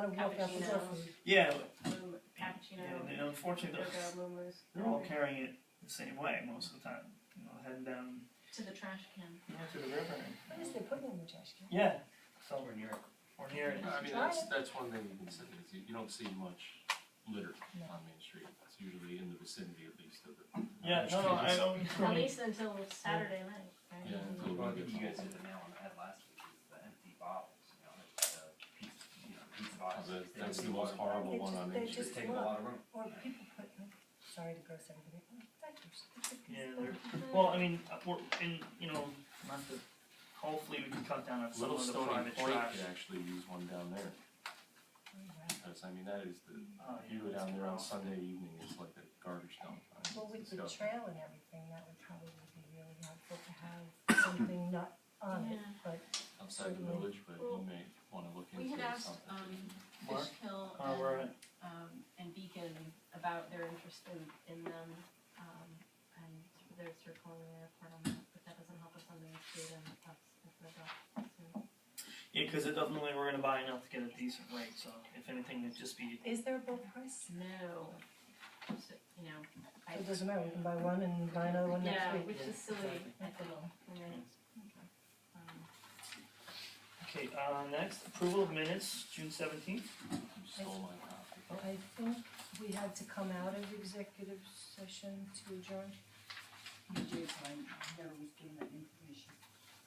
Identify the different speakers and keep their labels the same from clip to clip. Speaker 1: Southern Hillcrest is our food.
Speaker 2: Yeah,
Speaker 1: Um, Cappuccino,
Speaker 2: and unfortunately,
Speaker 1: Cocoa,
Speaker 2: they're,
Speaker 1: Moomoo's.
Speaker 2: they're all carrying it the same way most of the time. You know, heading down
Speaker 3: to the trash can.
Speaker 2: you know, to the river. and-
Speaker 1: What is they putting in the trash can?
Speaker 2: Yeah,
Speaker 4: Somewhere near it.
Speaker 2: or near it.
Speaker 5: I mean, that's, that's one thing you can say, is you, you don't see much litter
Speaker 1: No.
Speaker 5: on Main Street. It's usually in the vicinity at least of the.
Speaker 2: Yeah, no, no, I don't.
Speaker 3: At least until Saturday night, right?
Speaker 5: Yeah. until
Speaker 4: Well, I
Speaker 5: it
Speaker 4: think
Speaker 5: gets
Speaker 4: you guys
Speaker 5: full.
Speaker 4: did the mail on that last week, is the empty bottles, you know, like the piece, you know, piece bottles.
Speaker 5: Oh, that-
Speaker 4: They
Speaker 5: That's
Speaker 4: just-
Speaker 5: the most horrible one on
Speaker 1: They
Speaker 5: Main Street.
Speaker 4: Just
Speaker 1: just
Speaker 4: take a lot of room.
Speaker 1: Or people put, sorry to gross everybody, oh, diapers. They put these
Speaker 2: Yeah,
Speaker 1: little-
Speaker 2: they're,
Speaker 3: Mm-hmm.
Speaker 2: well, I mean, uh, we're, and, you know, not to, hopefully we can cut down on some
Speaker 5: Little
Speaker 2: of the
Speaker 5: Stony
Speaker 2: private
Speaker 5: Point
Speaker 2: trash.
Speaker 5: could actually use one down there,
Speaker 1: Oh, wow.
Speaker 5: because I mean, that is the,
Speaker 2: Oh, yeah,
Speaker 5: you go
Speaker 2: that's
Speaker 5: down there on
Speaker 2: gross.
Speaker 5: Sunday evening, it's like a garbage dump. I mean,
Speaker 1: Well, with
Speaker 5: it's
Speaker 1: the
Speaker 5: disgusting.
Speaker 1: trail and everything, that would probably be really helpful to have something not on it,
Speaker 3: Yeah.
Speaker 1: but
Speaker 5: Outside the
Speaker 1: Certainly.
Speaker 5: village, but
Speaker 3: Well,
Speaker 5: you may wanna look into
Speaker 6: We
Speaker 5: something.
Speaker 6: had asked, um,
Speaker 2: Mark?
Speaker 6: Fishkill
Speaker 2: Uh, we're
Speaker 6: and,
Speaker 2: at,
Speaker 6: um, and Beacon about their interest in, in them, um, and they're circling the airport on that, but that doesn't help us on the street and that's, that's the dock, so.
Speaker 2: yeah, cause it doesn't look like we're gonna buy enough to get a decent rate, so if anything, it'd just be,
Speaker 1: is there a bulk price?
Speaker 6: No, So, you know, I,
Speaker 1: It doesn't matter, we can buy one and buy another one next
Speaker 6: yeah,
Speaker 1: week.
Speaker 6: which is silly, I
Speaker 1: Not for
Speaker 6: think,
Speaker 1: long.
Speaker 6: you know, um.
Speaker 2: okay, uh, next, approval of minutes, June seventeenth,
Speaker 5: You stole my copy.
Speaker 1: I think we had to come out of executive session to adjourn.
Speaker 7: You did, I never was given that information.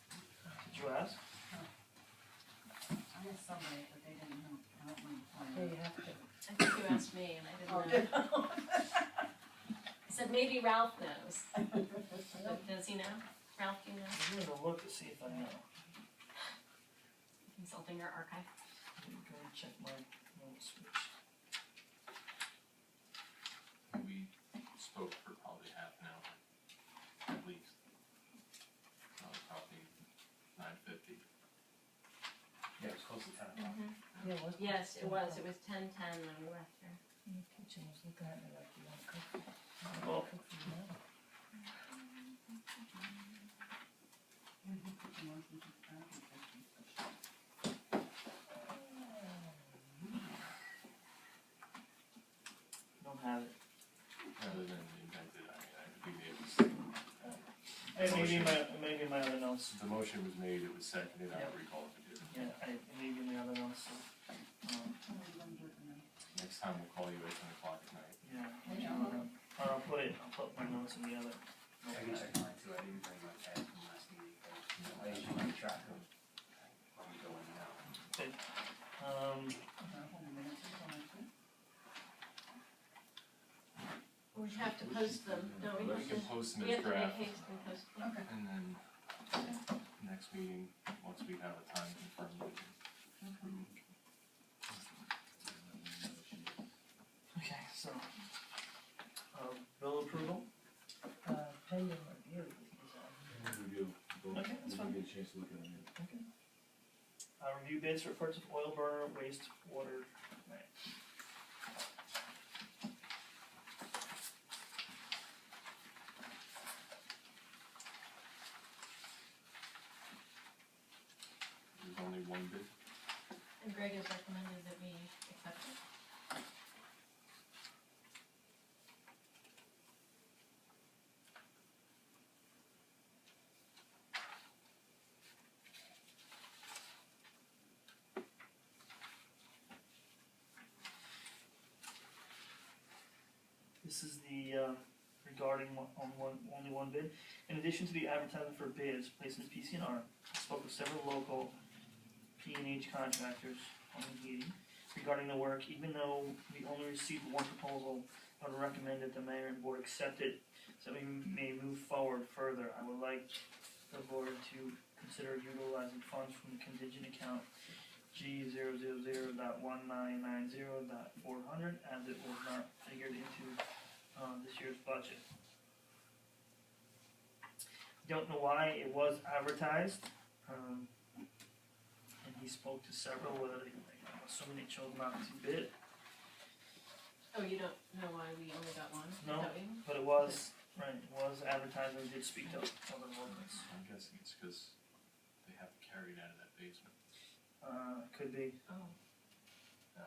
Speaker 2: did you ask?
Speaker 7: I had somebody, but they didn't know, I don't know.
Speaker 1: Yeah, you have to.
Speaker 6: I think you asked me and I didn't know. I said maybe Ralph knows. But Does he know? Ralph, do you know?
Speaker 2: I'm gonna look to see if I know,
Speaker 6: Consulting your archive.
Speaker 2: I'm gonna check my notes.
Speaker 5: We spoke for probably half an hour, at least. Uh, Probably nine fifty.
Speaker 4: Yeah, it was close to ten o'clock.
Speaker 6: Mm-hmm.
Speaker 1: Yeah, it was.
Speaker 6: Yes, it was. It was ten ten when we left here.
Speaker 1: In the kitchen, was looking at me like you want to cook. You wanna
Speaker 2: Well-
Speaker 1: cook for me now?
Speaker 2: Don't have it.
Speaker 5: Rather than invented, I mean, I think it was,
Speaker 2: Hey, maybe my, maybe my other notes,
Speaker 5: the motion was made, it was seconded, I don't recall if it did.
Speaker 2: yeah, I, maybe my other notes, so, um,
Speaker 5: Next time we'll call you at ten o'clock at night.
Speaker 2: yeah. Or I'll put it, I'll put my notes in the other.
Speaker 4: I can check mine too, I didn't bring my pad from last meeting, but I usually keep track of when we go in and out.
Speaker 2: Um,
Speaker 6: We have to post them, don't we?
Speaker 5: But
Speaker 6: Have
Speaker 5: can
Speaker 6: to-
Speaker 5: post them
Speaker 6: We
Speaker 5: as
Speaker 6: have to make
Speaker 5: draft,
Speaker 6: haste and post them.
Speaker 5: and then next meeting, once we have a time confirmed, we can
Speaker 2: Mm-hmm. okay, so, um, bill approval,
Speaker 1: Uh, pending review is on.
Speaker 2: Okay, that's fine.
Speaker 8: Get a chance to look at it.
Speaker 2: uh, review bids for purchase of oil burner wastewater plant.
Speaker 5: There's only one bid.
Speaker 6: And Greg has recommended that we accept it.
Speaker 2: This is the, uh, regarding one, on one, only one bid. In addition to the advertisement for bids placed in PCNR, I spoke with several local P and H contractors on the meeting regarding the work, even though we only received one proposal, I would recommend that the mayor and board accept it so we may move forward further. I would like the board to consider utilizing funds from the contingent account G zero zero zero dot one nine nine zero dot four hundred, as it was not figured into, um, this year's budget. Don't know why it was advertised, um, and he spoke to several, whether they, I'm assuming they chose not to bid,
Speaker 6: Oh, you don't know why we only got one? Is
Speaker 2: No.
Speaker 6: that what you-
Speaker 2: but it was, right, it was advertised and did speak to other locals.
Speaker 5: I'm guessing it's because they have to carry it out of that basement.
Speaker 2: Uh, could be,
Speaker 6: Oh,